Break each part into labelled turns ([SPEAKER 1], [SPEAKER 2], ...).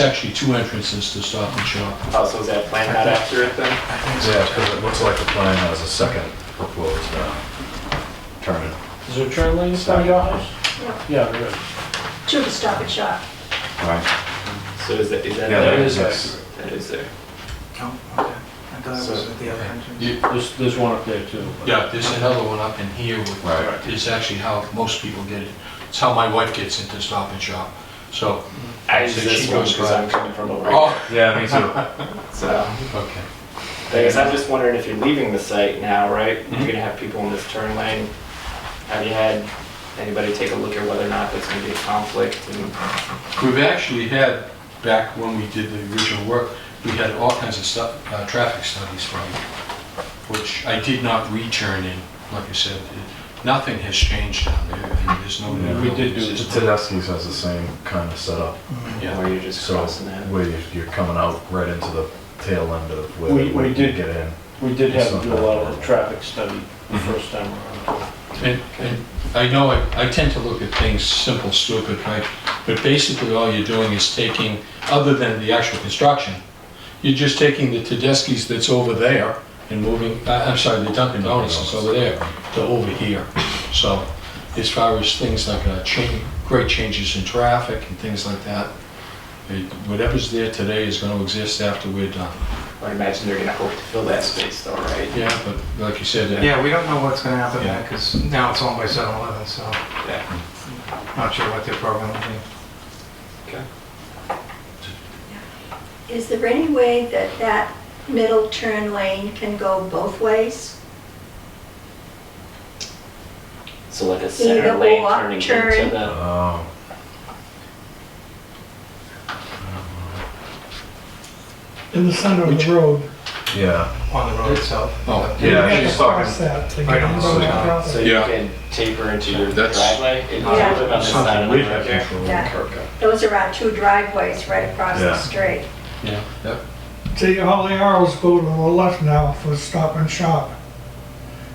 [SPEAKER 1] actually two entrances to Stop and Shop.
[SPEAKER 2] Oh, so is that plan not accurate then?
[SPEAKER 3] Yeah, because it looks like the plan has a second proposed uh, turn. in.
[SPEAKER 4] Is there turn lane in front of your house? Yeah, there is.
[SPEAKER 5] to the Stop and Shop.
[SPEAKER 3] Right.
[SPEAKER 2] So is that, is that
[SPEAKER 3] Yeah,
[SPEAKER 2] there?
[SPEAKER 4] is
[SPEAKER 3] yes.
[SPEAKER 2] That is there.
[SPEAKER 6] Oh, okay. I thought it was at the other entrance.
[SPEAKER 1] You-
[SPEAKER 4] There's, there's one up there too. but-
[SPEAKER 1] Yeah, there's another one up in here, which
[SPEAKER 3] Right.
[SPEAKER 1] is actually how most people get it. It's how my wife gets into Stop and Shop, so.
[SPEAKER 2] I use
[SPEAKER 1] So
[SPEAKER 2] this
[SPEAKER 1] she
[SPEAKER 2] one
[SPEAKER 1] goes
[SPEAKER 2] because
[SPEAKER 1] by-
[SPEAKER 2] I'm coming from over here.
[SPEAKER 1] Oh,
[SPEAKER 3] Yeah, me too.
[SPEAKER 2] So,
[SPEAKER 1] okay.
[SPEAKER 2] I guess I'm just wondering if you're leaving the site now, right?
[SPEAKER 1] Mm-hmm.
[SPEAKER 2] You're gonna have people in this turn lane. Have you had anybody take a look at whether or not there's gonna be a conflict? And
[SPEAKER 1] We've actually had, back when we did the original work, we had all kinds of stuff, uh, traffic studies from, which I did not return in, like I said. it- Nothing has changed down there, and there's no.
[SPEAKER 3] Yeah.
[SPEAKER 1] new
[SPEAKER 3] We
[SPEAKER 4] did do
[SPEAKER 1] buildings.
[SPEAKER 4] this.
[SPEAKER 3] Tedeschi's has the same kind of setup,
[SPEAKER 1] Yeah,
[SPEAKER 2] Or you're just
[SPEAKER 3] so
[SPEAKER 2] crossing that?
[SPEAKER 3] where you- you're coming out right into the tail end of where
[SPEAKER 4] We-
[SPEAKER 3] you
[SPEAKER 4] we did-
[SPEAKER 3] get in.
[SPEAKER 4] We did have to do a lot of the traffic study the first time around.
[SPEAKER 1] and, and I know I, I tend to look at things simple, stupid, right? But basically, all you're doing is taking, other than the actual construction, you're just taking the Tedeschi's that's over there and moving, I- I'm sorry, the Dunkin' Donuts that's over there to over here. So as far as things like uh, cha- great changes in traffic and things like that, it- whatever's there today is going to exist after we're done.
[SPEAKER 2] I imagine they're gonna hope to fill that space though, right?
[SPEAKER 1] Yeah, but like you said, uh,
[SPEAKER 6] Yeah, we don't know what's gonna happen
[SPEAKER 1] Yeah.
[SPEAKER 6] there, because now it's owned by 7-Eleven, so
[SPEAKER 2] Yeah.
[SPEAKER 6] not sure what their program will be.
[SPEAKER 2] Okay.
[SPEAKER 5] Is there any way that that middle turn lane can go both ways?
[SPEAKER 2] So like a center
[SPEAKER 5] Either
[SPEAKER 2] lane
[SPEAKER 5] or,
[SPEAKER 2] turning
[SPEAKER 5] turn.
[SPEAKER 2] into the,
[SPEAKER 3] Oh.
[SPEAKER 7] in the center of the road.
[SPEAKER 3] Yeah,
[SPEAKER 6] On the road itself.
[SPEAKER 1] oh,
[SPEAKER 3] Yeah,
[SPEAKER 7] You have
[SPEAKER 3] she's
[SPEAKER 7] to cross
[SPEAKER 3] talking-
[SPEAKER 7] that to
[SPEAKER 6] Right
[SPEAKER 7] get
[SPEAKER 6] on
[SPEAKER 7] on
[SPEAKER 6] the
[SPEAKER 7] the road
[SPEAKER 6] side.
[SPEAKER 7] across
[SPEAKER 2] so
[SPEAKER 7] it.
[SPEAKER 2] you
[SPEAKER 1] Yeah.
[SPEAKER 2] can taper into your
[SPEAKER 1] That's-
[SPEAKER 2] driveway? It's sort of on the side
[SPEAKER 3] something
[SPEAKER 2] of the
[SPEAKER 3] we
[SPEAKER 2] road
[SPEAKER 3] have
[SPEAKER 2] there.
[SPEAKER 3] control. over.
[SPEAKER 5] Yeah, those are our two driveways right across the
[SPEAKER 3] Yeah.
[SPEAKER 5] street.
[SPEAKER 1] yeah, that-
[SPEAKER 7] See, all the arrows go to the left now for Stop and Shop.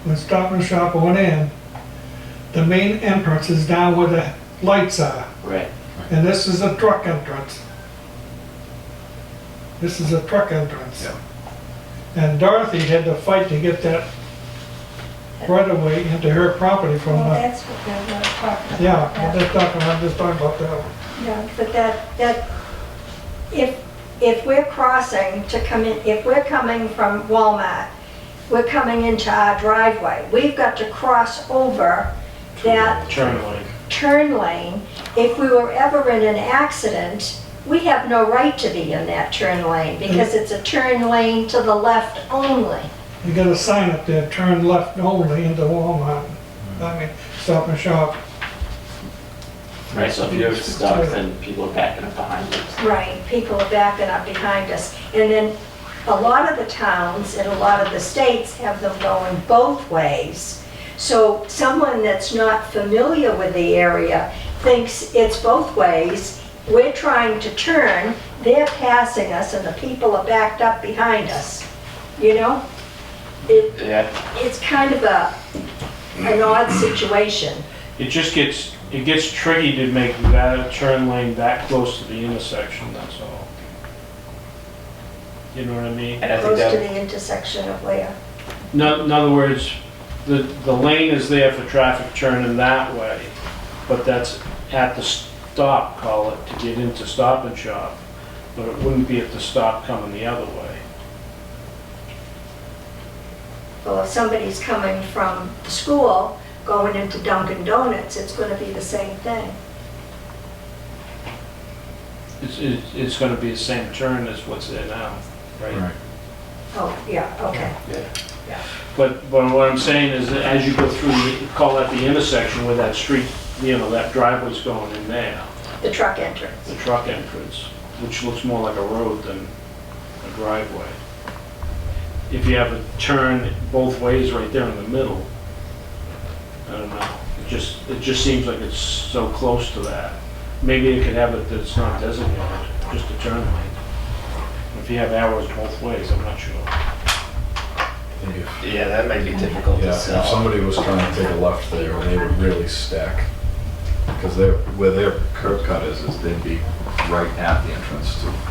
[SPEAKER 7] When Stop and Shop went in, the main entrance is down where the lights are,
[SPEAKER 2] Right.
[SPEAKER 7] and this is a truck entrance. This is a truck entrance.
[SPEAKER 3] Yeah.
[SPEAKER 7] And Dorothy had to fight to get that right of way into her property from
[SPEAKER 5] Well,
[SPEAKER 7] the,
[SPEAKER 5] that's what they're not talking about.
[SPEAKER 7] yeah,
[SPEAKER 5] now.
[SPEAKER 7] I'm just talking, I'm just talking about that. one.
[SPEAKER 5] No, but that, that, if, if we're crossing to come in, if we're coming from Walmart, we're coming into our driveway, we've got to cross over that
[SPEAKER 4] Turn lane.
[SPEAKER 5] turn lane. If we were ever in an accident, we have no right to be in that turn lane because it's a turn lane to the left only.
[SPEAKER 7] You got a sign up there, turn left only into Walmart. I mean, Stop and Shop.
[SPEAKER 2] Right, so if you're stuck, then people are backing up behind you.
[SPEAKER 5] Right, people are backing up behind us. And then a lot of the towns and a lot of the states have them going both ways. So someone that's not familiar with the area thinks it's both ways. We're trying to turn, they're passing us and the people are backed up behind us, you know? It,
[SPEAKER 2] Yeah.
[SPEAKER 5] it's kind of a, an odd situation.
[SPEAKER 4] It just gets, it gets tricky to make that turn lane that close to the intersection, that's all. You know what I mean?
[SPEAKER 2] And I think
[SPEAKER 5] Close to
[SPEAKER 2] that,
[SPEAKER 5] the intersection of where?
[SPEAKER 4] No- In other words, the, the lane is there for traffic turning that way, but that's at the stop, call it, to get into Stop and Shop, but it wouldn't be at the stop coming the other way.
[SPEAKER 5] Well, if somebody's coming from school, going into Dunkin' Donuts, it's gonna be the same thing.
[SPEAKER 4] It's, it's, it's gonna be the same turn as what's there now, right?
[SPEAKER 3] Right.
[SPEAKER 5] Oh, yeah, okay.
[SPEAKER 4] But, but what I'm saying is that as you go through, the- call that the intersection where that street, you know, that driveway's going in there,
[SPEAKER 5] The truck entrance.
[SPEAKER 4] the truck entrance, which looks more like a road than a driveway. If you have a turn both ways right there in the middle, I don't know, it just, it just seems like it's so close to that. Maybe it could have it that it's not designated, just a turn lane. If you have arrows both ways, I'm not sure.
[SPEAKER 3] I think if-
[SPEAKER 2] yeah, that might be difficult
[SPEAKER 3] Yeah,
[SPEAKER 2] to
[SPEAKER 3] and if
[SPEAKER 2] sell.
[SPEAKER 3] somebody was trying to take a left there, they would really stack. Because they're, where their curb cut is, is they'd be right at the entrance to